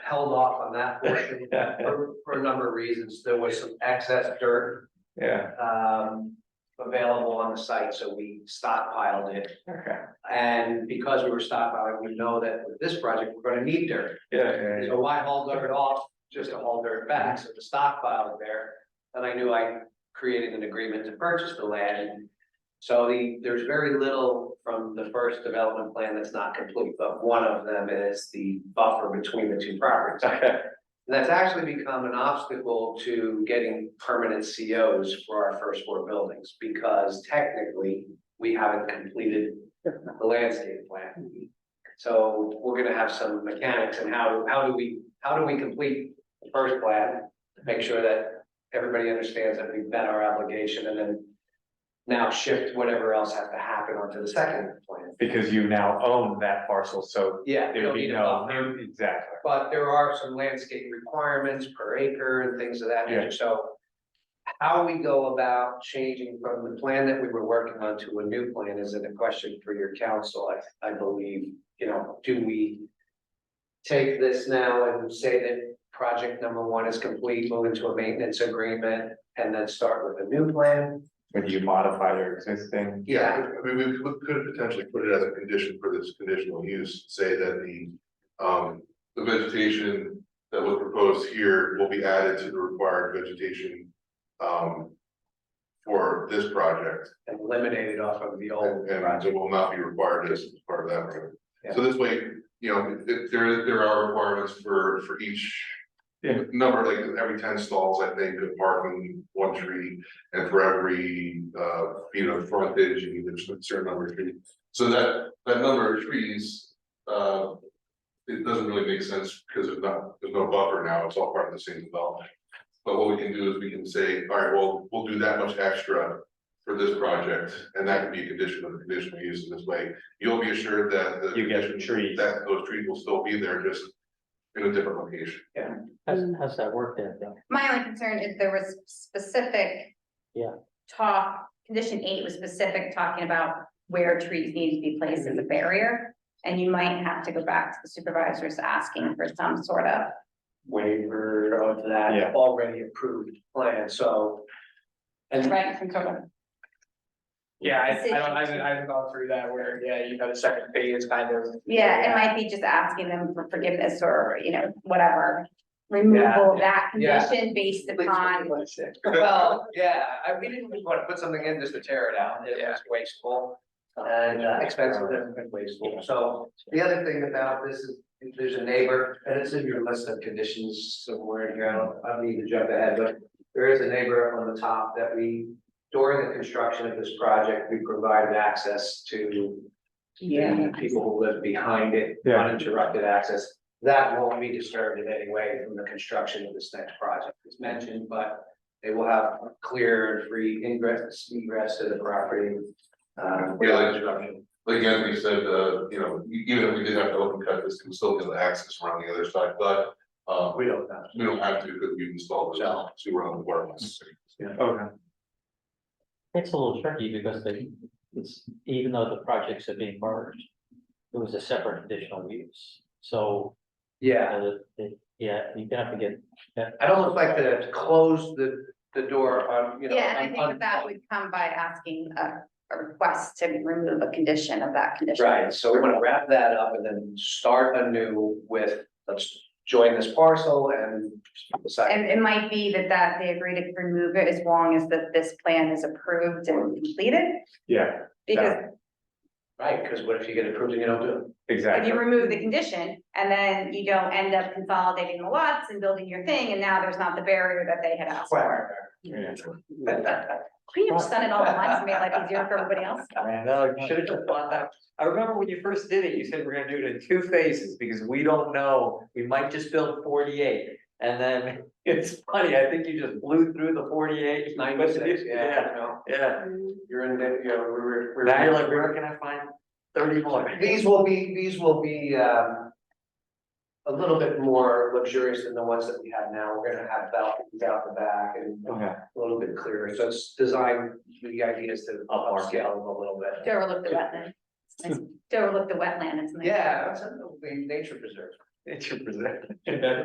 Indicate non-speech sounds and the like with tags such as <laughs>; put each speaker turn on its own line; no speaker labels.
held off on that
<laughs>
portion for, for a number of reasons. There was some excess dirt,
Yeah,
um, available on the site, so we stockpiled it.
okay,
And because we were stockpiling, we know that with this project, we're gonna need dirt.
yeah, yeah, yeah.
So why haul dirt off, just to haul dirt back, so the stockpile was there. And I knew I created an agreement to purchase the land. So the, there's very little from the first development plan that's not complete, but one of them is the buffer between the two properties.
okay,
And that's actually become an obstacle to getting permanent COs for our first four buildings, because technically, we haven't completed the landscape plan. So we're gonna have some mechanics and how, how do we, how do we complete the first plan? Make sure that everybody understands that we've met our obligation and then now shift whatever else has to happen onto the second plan.
<laughs> because you now own that parcel, so
Yeah.
there'd
you'll
be
need a
no,
buffer.
new- exactly,
But there are some landscape requirements per acre and things of that
Yeah.
nature, so. How we go about changing from the plan that we were working on to a new plan is a question for your council, I, I believe, you know, do we? Take this now and say that project number one is complete, move into a maintenance agreement, and then start with a new plan?
when you modify your existing.
Yeah,
I mean, we we could potentially put it as a condition for this conditional use, say that the, um, the vegetation that was proposed here will be added to the required vegetation, um, for this project,
and eliminate it off of the old
and,
project,
and it will not be required as part of that. project. So this way, you know, if there, there are requirements for, for each
Yeah.
number, like every ten stalls, I think, of parking, one tree, and for every, uh, feet of frontage, you need a certain number of trees. So that, that number of trees, uh, it doesn't really make sense because there's not, there's no buffer now, it's all part of the same development. But what we can do is we can say, all right, well, we'll do that much extra for this project, and that can be a condition of the conditional use in this way. You'll be assured that the.
You get the trees.
That those trees will still be there, just in a different location.
How's,
Mm.
how's that work there, though?
My only concern is there was specific.
Yeah.
Talk, condition eight was specific, talking about where trees need to be placed as a barrier. And you might have to go back to the supervisors asking for some sort of,
waiver of
Yeah.
that already approved plan, so. And
right, some sort of,
Yeah, I, I
Decision.
don't, I haven't, I haven't gone through that where, yeah, you know, the second phase kind of.
yeah, it might be just asking them for forgiveness or, you know, whatever. Removal of that
Yeah.
condition based upon, <laughs>
Well, yeah, I, we didn't want to put something in just to tear it out, it was wasteful. And uh, expensive and wasteful, so the other thing about this is, if there's a neighbor, and it's in your list of conditions somewhere in here, I don't, I don't need to jump ahead, but. There is a neighbor on the top that we, during the construction of this project, we provided access to.
Yeah.
the People who live behind it,
Yeah.
uninterrupted access, that won't be disturbed in any way from the construction of this next project, as mentioned, but. They will have clear and free ingress, egress to the property. Uh, without interruption.
Like Anthony said, uh, you know, e- even if we did have to open cut this, we would still be able to access around the other side, but, uh,
We don't know.
we don't have to, because we installed this,
No.
so we're on the water lines.
Okay,
It's a little tricky because they, it's, even though the projects are being merged, it was a separate additional use. So,
Yeah,
uh, it- yeah, you can have to get,
I'd almost like to close the, the door on, you know.
yeah, and I
on-
think that would come by asking a, a request to remove a condition of that condition.
Right, so we want to wrap that up and then start anew with, let's join this parcel and decide.
And it might be that that they agree to remove it as long as that this plan is approved and completed.
yeah,
Because
Right, because what if you get approved and you don't do it?
if
exactly,
you remove the condition and then you don't end up consolidating the lots and building your thing, and now there's not the barrier that they had asked for.
<laughs>
yeah.
Can you just done it all at once and made life easier for everybody else?
Man, no, you should have just bought that. I remember when you first did it, you said we're gonna do it in two phases because we don't know, we might just build forty-eight. And then <laughs> it's funny, I think you just blew through the forty-eight.
Ninety-six, yeah, you know,
Yeah,
you're in, the- you know, we we're. we we're-
now you're like, where can I find thirty more?
<laughs> These will be, these will be, um. A little bit more luxurious than the ones that we have now. We're gonna have balconies out the back and
Okay,
a little bit clearer. So it's designed, the idea is to
Up our-
upscale them a little bit.
To overlook the wetland. Nice. To overlook the wetland, it's nice.
Yeah, that's a, nature preserve.
<laughs>
It's your present.